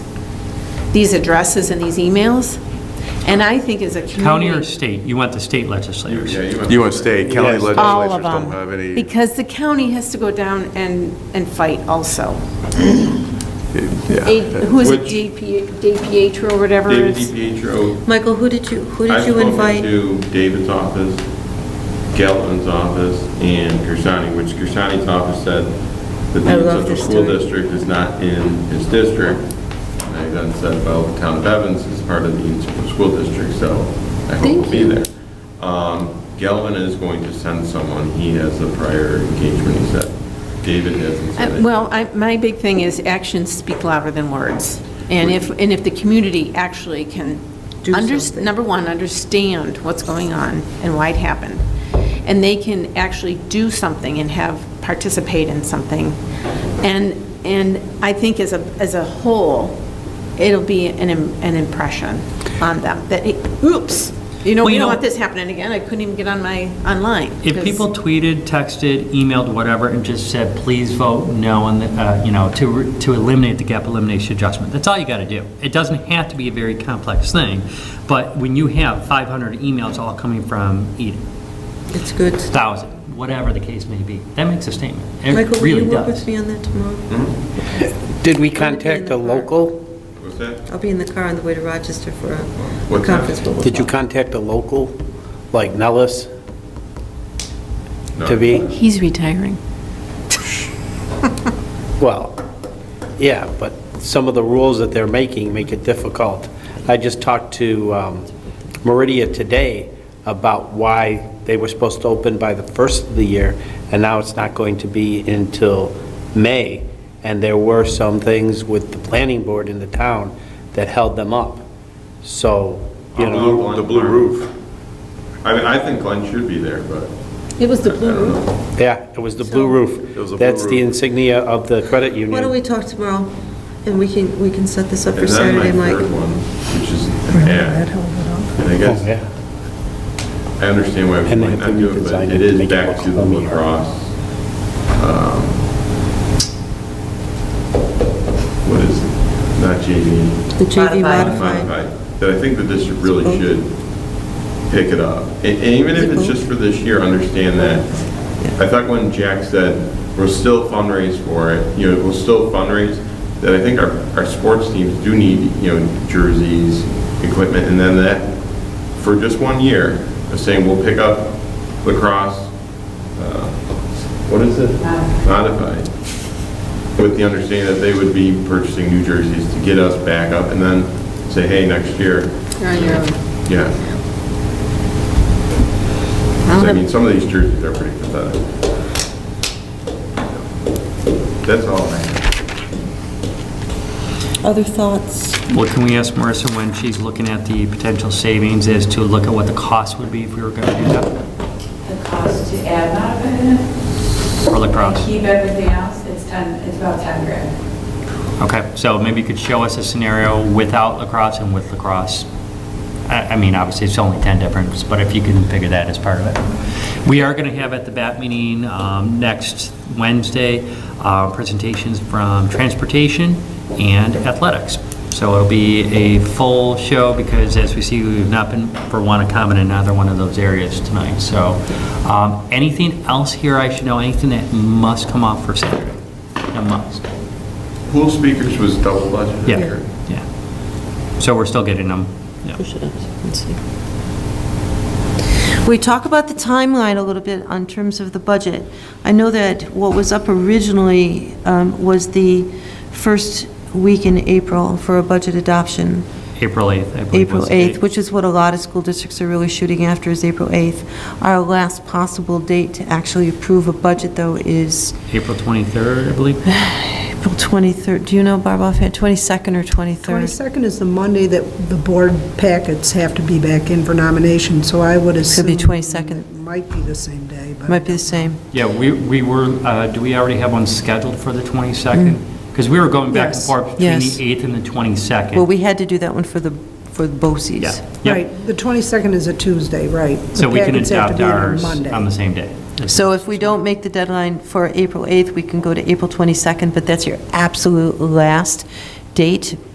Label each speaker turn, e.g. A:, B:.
A: these addresses and these emails. And I think as a community.
B: County or state? You want the state legislators.
C: You want state, county
D: Yes.
C: legislatures
A: All of
C: don't have
A: them.
C: any,
A: Because the county has to go down and, and fight also. A-
C: yeah.
A: Who is it,
D: Which-
A: DPH or whatever it
D: David
A: is?
D: DiPietro.
E: Michael, who did you, who did
D: I've
E: you invite?
D: spoken to David's office, Gelton's office, and Gersani, which Gersani's office said the
E: I
D: dean
E: love
D: of the
E: this
D: school
E: story.
D: district is not in his district. And I then said, well, the town of Evans is part of the dean's of the school district, so I hope we'll be there. Um, Gelvin is going to send someone, he has a prior engagement, he said. David hasn't
A: Uh,
D: said it.
A: Well, I, my big thing is actions speak louder than words. And if, and if the community actually can,
E: Do
A: under-
E: something.
A: number one, understand what's going on and why it happened, and they can actually do something and have, participate in something. And, and I think as a, as a whole, it'll be an, im- an impression on them that, hey, oops, you know,
B: Well,
A: we
B: you
A: don't
B: know-
A: want this happening again. I couldn't even get on my, online.
B: If
A: 'cause-
B: people tweeted, texted, emailed, whatever, and just said, please vote no, and, uh, you know, to, re- to eliminate the gap elimination adjustment, that's all you got to do. It doesn't have to be a very complex thing, but when you have 500 emails all coming from Eden,
E: It's good.
B: 1,000, whatever the case may be, that makes a statement.
E: Michael,
B: It
E: will
B: really
E: you work with
B: does.
E: me on that
D: Hmm?
E: tomorrow?
F: Did
E: gonna be
F: we
E: in
F: contact
E: the
F: the
E: car.
F: local?
D: What's that?
E: I'll be in the car on the way to Rochester for a- a
D: What time?
E: conference. but we'll
F: Did you
E: talk.
F: contact the local, like Nellis,
D: No.
F: to be?
A: He's retiring.
F: Well, yeah, but some of the rules that they're making make it difficult. I just talked to um, Meridia today about why they were supposed to open by the first of the year, and now it's not going to be until May. And there were some things with the planning board in the town that held them up. So, you
D: The
F: know.
D: blue- the blue roof. I mean, I think Glenn should be there, but
A: It was the
D: I don't know.
F: Yeah, it was the blue roof.
D: It was a blue
F: That's the
D: roof.
F: insignia of the credit union.
E: Why don't we talk tomorrow, and we can, we can set this up for
D: And then my
E: Saturday, Mike?
D: third one, which is an ad. And I
F: Oh,
D: guess,
F: yeah.
D: I understand why we
F: And they
D: might not
F: have to
D: do it,
F: redesign
D: but
F: it
D: it
F: to
D: is
F: make it
D: back
F: look
D: to the
F: homey.
D: lacrosse. um, What is it? Not JV.
E: The JV modified.
D: Modified. That I think the district really should pick it up. And and even if it's just for this year, understand that. I thought when Jack said, we'll still fundraise for it, you know, we'll still fundraise, that I think our, our sports teams do need, you know, jerseys, equipment, and then that, for just one year, of saying we'll pick up lacrosse, uh, what is it? Modified. With the understanding that they would be purchasing new jerseys to get us back up, and then say, hey, next year,
A: You're on your own.
D: yeah. 'Cause, I mean, some of these jerseys are pretty pathetic. That's all I have.
E: Other thoughts?
B: Well, can we ask Marissa when she's looking at the potential savings is to look at what the cost would be if we were going to do that
G: the cost to add modified,
B: for lacrosse?
G: keep everything else, it's 10, it's about 10 grand.
B: Okay, so maybe you could show us a scenario without lacrosse and with lacrosse. I, I mean, obviously, it's only 10 difference, but if you can figure that as part of it. We are going to have at the BAT meeting um, next Wednesday, uh, presentations from transportation and athletics. So it'll be a full show because as we see, we've not been, for one, a common in either one of those areas tonight. So um, anything else here I should know, anything that must come off for Saturday? A must.
D: Pool speakers was double budgeted.
B: Yeah, yeah. So we're still getting them. yeah.
E: We talk about the timeline a little bit on terms of the budget. I know that what was up originally um, was the first week in April for a budget adoption,
B: April 8th, I believe
E: April
B: was the date.
E: 8th, which is what a lot of school districts are really shooting after, is April 8th. Our last possible date to actually approve a budget, though, is
B: April 23rd, I believe.
E: April 23rd. Do you know, Barb, offhand, 22nd or 23rd?
H: 22nd is the Monday that the board packets have to be back in for nomination, so I would assume...
E: be 22nd.
H: It might be the same day, but...
E: Might be the same.
B: Yeah, we, we were, uh, do we already have one scheduled for the 22nd? Because we were going back and
H: Yes.
B: forth between the
E: Yes.
B: 8th and the 22nd.
E: Well, we had to do that one for the, for the BOCES.
B: Yeah,
H: Right,
B: yeah.
H: the 22nd is a Tuesday, right. The
B: So we can
H: packets have to
B: adopt
H: be in
B: ours
H: Monday.
B: on the same day.
E: So if we don't make the deadline for April 8th, we can go to April 22nd, but that's your absolute last date